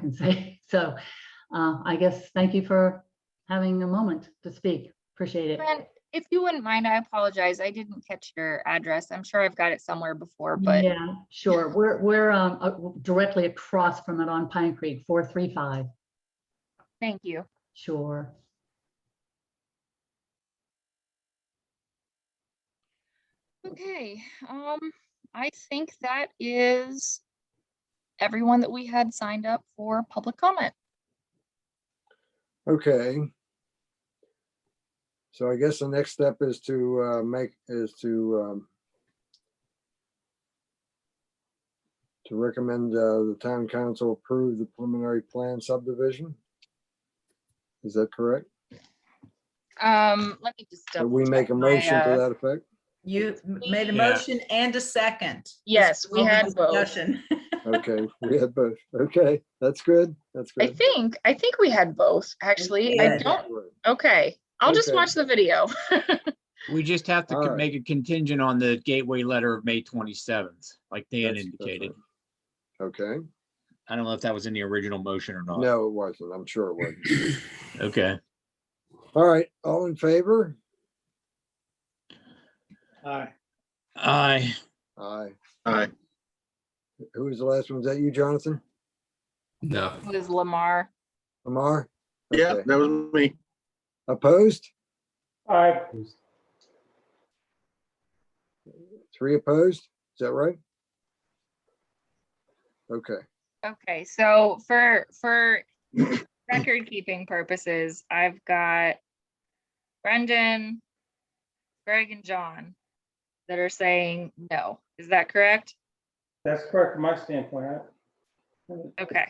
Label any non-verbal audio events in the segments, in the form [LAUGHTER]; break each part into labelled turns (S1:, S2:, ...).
S1: can say. [LAUGHS] So uh, I guess thank you for having a moment to speak. Appreciate it.
S2: Fran, if you wouldn't mind, I apologize. I didn't catch your address. I'm sure I've got it somewhere before, but
S1: Yeah, sure. We're, we're um, uh, directly across from it on Pine Creek, 435.
S2: thank you.
S1: Sure.
S2: Okay, um, I think that is everyone that we had signed up for public comment.
S3: Okay. So I guess the next step is to uh, make, is to um, to recommend uh, the town council approve the preliminary plan subdivision. Is that correct?
S2: Um, let me just.
S3: Did we
S2: double
S3: make a
S2: check my,
S3: motion to
S2: uh,
S3: that effect?
S4: You m- made a
S5: Yeah.
S4: motion and a second.
S2: Yes, we
S4: Over
S2: had both.
S4: discussion. [LAUGHS]
S3: Okay, we had both. Okay, that's good. That's
S2: I
S3: good.
S2: think, I think we had both, actually. I
S4: did.
S2: don't, okay, I'll just
S3: Okay.
S2: watch the video.
S5: We just have to
S3: All
S5: co-
S3: right.
S5: make a contingent on the gateway letter of May twenty-seventh, like Dan
S3: That's- that's
S5: indicated.
S3: right. Okay,
S5: I don't know if that was in the original motion or not.
S3: no, it wasn't. I'm sure it wasn't.
S5: Okay.
S3: All right, all in favor?
S5: I,
S3: Aye.
S6: Aye.
S3: Who was the last one? Was that you, Jonathan?
S7: No,
S2: It was Lamar.
S3: Lamar?
S6: Yeah,
S3: Okay.
S6: that was me.
S3: Opposed?
S8: Aye.
S3: Three opposed? Is that right? Okay,
S2: Okay, so for, for [COUGHS] record keeping purposes, I've got Brendan, Greg and John that are saying no. Is that correct?
S8: That's correct from my standpoint. I-
S2: Okay,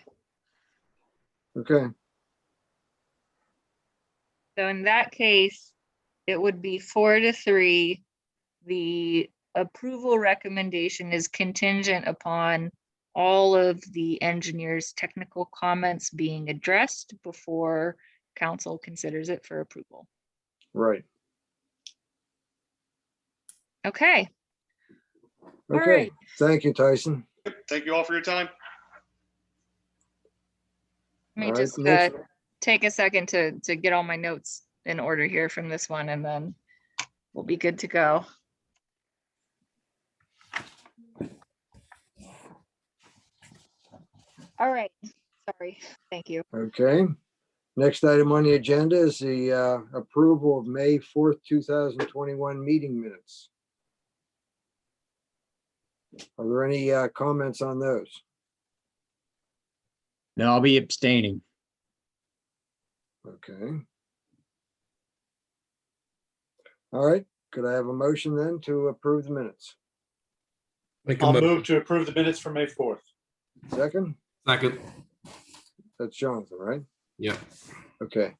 S3: okay.
S2: so in that case, it would be four to three. The approval recommendation is contingent upon all of the engineer's technical comments being addressed before council considers it for approval.
S3: Right.
S2: Okay, all
S3: Okay.
S2: right.
S3: Thank you, Tyson.
S6: Thank you all for your time.
S2: Let
S3: All
S2: me
S3: right,
S2: just uh,
S3: next-
S2: take a second to, to get all my notes in order here from this one and then we'll be good to go. All right, sorry, thank you.
S3: Okay. Next item on the agenda is the uh, approval of May 4th, 2021 meeting minutes. Are there any uh, comments on those?
S5: no, I'll be abstaining.
S3: Okay. All right, could I have a motion then to approve the minutes?
S7: make a
S9: I'll
S7: mo-
S9: move to approve the minutes for May 4th. [LAUGHS]
S3: Second,
S7: second.
S3: that's Jonathan, right?
S7: Yeah.
S3: Okay,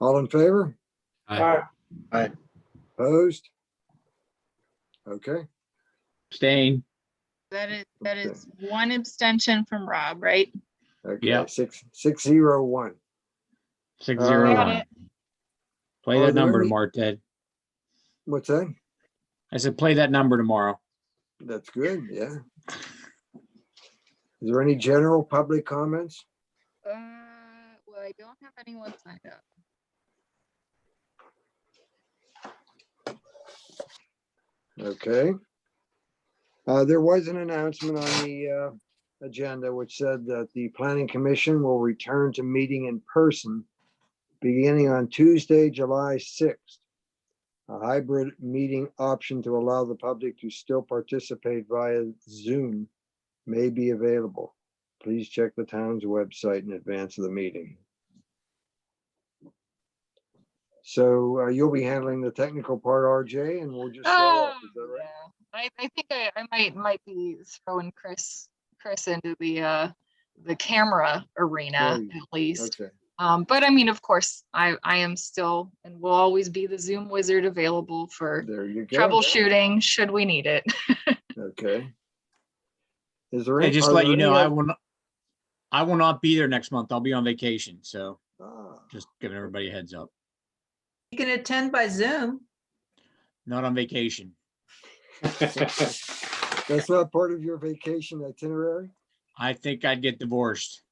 S3: all in favor?
S7: Aye.
S8: Aye.
S3: Opposed? Okay,
S5: Abstain.
S2: That is, that
S3: Okay.
S2: is one abstention from Rob, right?
S3: okay,
S5: Yeah.
S3: six, six zero one.
S5: Six
S3: Uh,
S5: zero
S2: Got
S5: one.
S2: it.
S5: Play
S3: Are
S5: that
S3: there
S5: number
S3: any-
S5: tomorrow, Ted.
S3: What's that?
S5: I said, play that number tomorrow.
S3: That's good, yeah. Is there any general public comments?
S2: Uh, well, I don't have anyone signed up.
S3: Okay. Uh, There was an announcement on the uh, agenda which said that the planning commission will return to meeting in person beginning on Tuesday, July 6th. A hybrid meeting option to allow the public to still participate via Zoom may be available. Please check the town's website in advance of the meeting. So uh, you'll be handling the technical part, RJ, and we'll just. show up, is that
S2: Um,
S3: right?
S2: yeah. I, I think I, I might, might be throwing Chris, Chris into the, uh, the camera arena
S3: Right,
S2: at least.
S3: Okay,
S2: Um, but I mean, of course, I, I am still and will always be the Zoom wizard available for
S3: there you go.
S2: troubleshooting should we need it. [LAUGHS]
S3: Okay. Is there?
S5: Hey,
S3: any-
S5: just
S3: are
S5: let
S3: there
S5: you know,
S3: any
S5: I
S3: oth-
S5: will not, I will not be there next month. I'll be on vacation. So
S3: Ah,
S5: just giving everybody a heads up.
S4: You can attend by Zoom.
S5: Not on vacation.
S3: That's not part of your vacation itinerary?
S5: I think I'd get divorced.